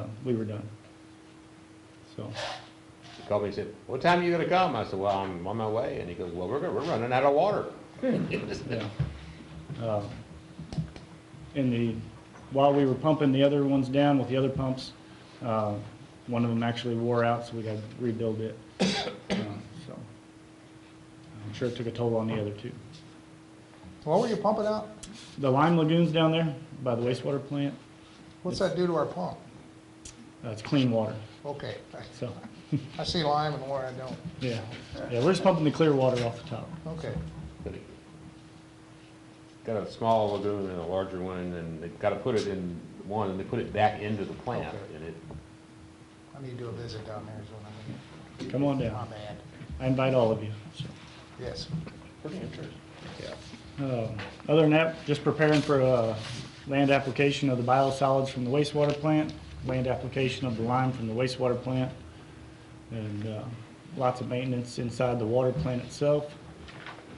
Uh, we were done. So, He called me and said, what time you gonna come? I said, well, I'm on my way. And he goes, well, we're, gonna- we're running out of water. yeah. Um, And the, while we were pumping the other ones down with the other pumps, uh, one of them actually wore out, so we had to rebuild it. Uh, So, I'm sure it took a toll on the other two. What were you pumping out? The lime lagoons down there by the wastewater plant, What's that do to our pump? uh, it's clean water, Okay, so, I see lime and where I don't. yeah. Yeah, we're just pumping the clear water off the top. Okay, But it- Got a small lagoon and a larger one, and they've gotta put it in one, and they put it back into the plant, Okay. and it, I need to do a visit down there is what Come on I mean. My down. bad. I invite all of you, so. Yes. pretty interesting. Um, Other than that, just preparing for uh, land application of the biosolids from the wastewater plant, land application of the lime from the wastewater plant, and uh, lots of maintenance inside the water plant itself.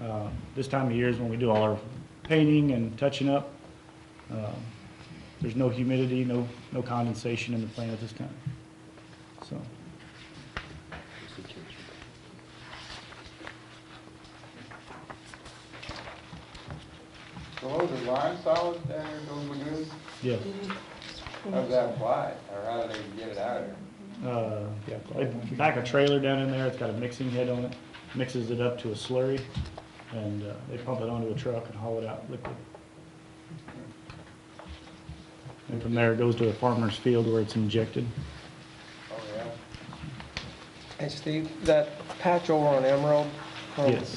Uh, This time of year is when we do all our painting and touching up. Um, There's no humidity, no no condensation in the plant at this time. So, So those are lime solids down there, those lagoons, yeah. how's that wide, or how do they get it out of there? Uh, yeah, they pack a trailer down in there, it's got a mixing head on it, mixes it up to a slurry, and uh, they pump it onto a truck and haul it out liquid. And from there, it goes to a farmer's field where it's injected. Oh, yeah, Hey, Steve, that patch over on Emerald? um, Yes.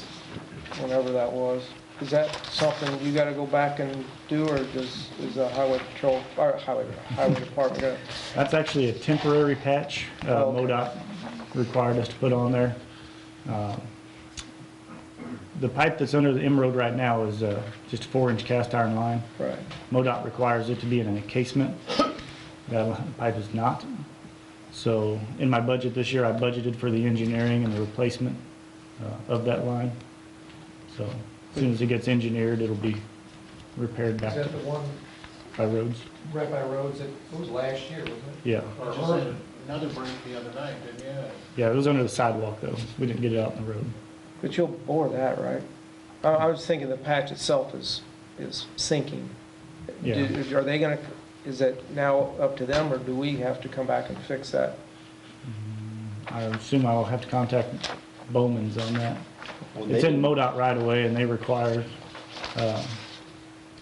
Whenever that was, is that something you gotta go back and do, or does, is the highway patrol, or highway, highway department gonna? That's actually a temporary patch, uh, Oh, okay. MoDOT required us to put on there. Um, The pipe that's under the M-road right now is uh, just a four-inch cast iron line. Right. MoDOT requires it to be in an encasement. That pipe is not. So in my budget this year, I budgeted for the engineering and the replacement uh, of that line. So as soon as it gets engineered, it'll be repaired back Is that the one by roads. right by roads that, it was last year, wasn't it? Yeah, Or earlier? Another break the other night, didn't you? yeah, it was under the sidewalk though. We didn't get it out in the road. But you'll bore that, right? I, I was thinking the patch itself is, is sinking. Yeah. Do- Are they gonna, is that now up to them, or do we have to come back and fix that? I assume I'll have to contact Bowman's on that. Well, It's they- in MoDOT right away and they require uh,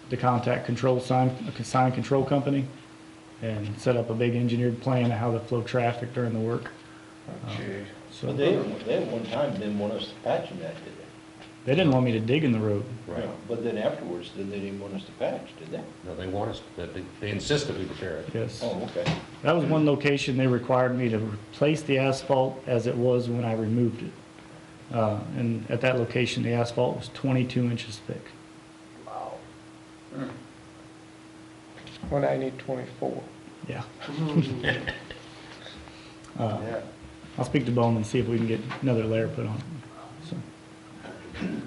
the contact control sign, sign control company and set up a big engineered plan of how to flow traffic during the work. Um, So But they, they at one time didn't want us to patch them that, did they? they didn't want me to dig in the road. Right, But then afterwards, then they didn't want us to patch, did they? no, they want us, but they, they insist that we repair it. Yes. Oh, okay. That was one location they required me to replace the asphalt as it was when I removed it. Uh, And at that location, the asphalt was 22 inches thick. When I need twenty-four? Yeah. yeah. I'll speak to Bowman and see if we can get another layer put on it. So, And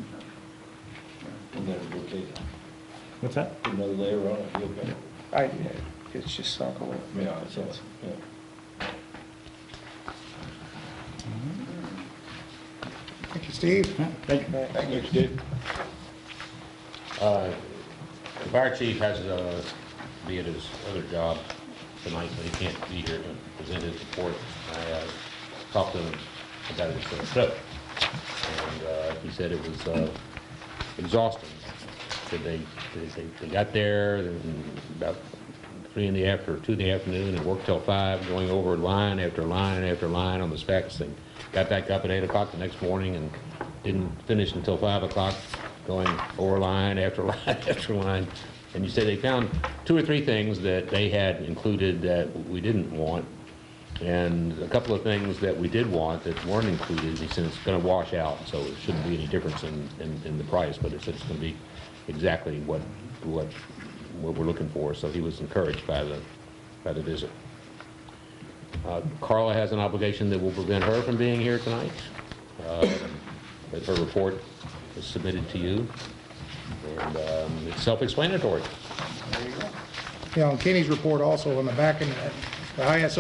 then we'll take What's that? another layer on it, you'll go. I, it's just sunk a little. Yeah, so, yeah. Thank you, Steve. Yeah, Thank you. Thank you, Steve. Uh, The fire chief has, uh, be at his other job tonight, but he can't be here to present his report. I uh, talked to him about his uh, trip, and uh, he said it was uh, exhausting. Said they, they- they they got there and about three in the after, two in the afternoon, and worked till five, going over line after line after line on the stacks, and got back up at eight o'clock the next morning and didn't finish until five o'clock, going over line after line after line. And you say they found two or three things that they had included that we didn't want, and a couple of things that we did want that weren't included, he said it's gonna wash out, so it shouldn't be any difference in, in, in the price, but it said it's gonna be exactly what, what, what we're looking for, so he was encouraged by the, by the visit. Uh, Carla has an obligation that will prevent her from being here tonight, um, but her report is submitted to you, and, um, it's self-explanatory. You know, Kenny's report also in the back, and the ISO